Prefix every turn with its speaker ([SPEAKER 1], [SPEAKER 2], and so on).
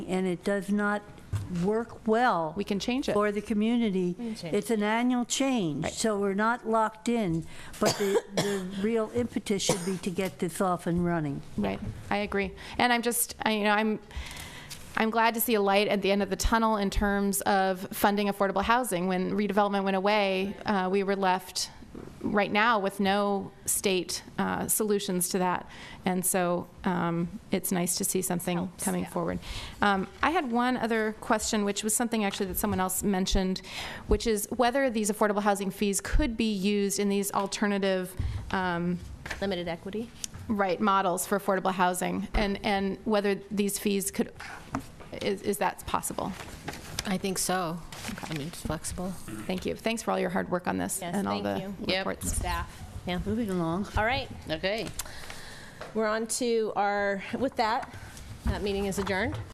[SPEAKER 1] and it does not work well.
[SPEAKER 2] We can change it.
[SPEAKER 1] For the community. It's an annual change, so we're not locked in, but the, the real impetus should be to get this off and running.
[SPEAKER 2] Right, I agree. And I'm just, I, you know, I'm, I'm glad to see a light at the end of the tunnel in terms of funding affordable housing. When redevelopment went away, uh, we were left right now with no state uh, solutions to that. And so um, it's nice to see something coming forward. Um, I had one other question, which was something actually that someone else mentioned, which is whether these affordable housing fees could be used in these alternative um,
[SPEAKER 3] Limited equity?
[SPEAKER 2] right models for affordable housing and, and whether these fees could, is, is that possible?
[SPEAKER 3] I think so. I mean, it's flexible.
[SPEAKER 2] Thank you. Thanks for all your hard work on this
[SPEAKER 4] Yes,
[SPEAKER 2] and all
[SPEAKER 4] thank
[SPEAKER 2] the
[SPEAKER 4] you. Yep.
[SPEAKER 2] reports.
[SPEAKER 4] Staff.
[SPEAKER 3] Yeah.
[SPEAKER 1] Moving along.
[SPEAKER 4] All right,
[SPEAKER 3] Okay.
[SPEAKER 4] we're on to our, with that, that meeting is adjourned.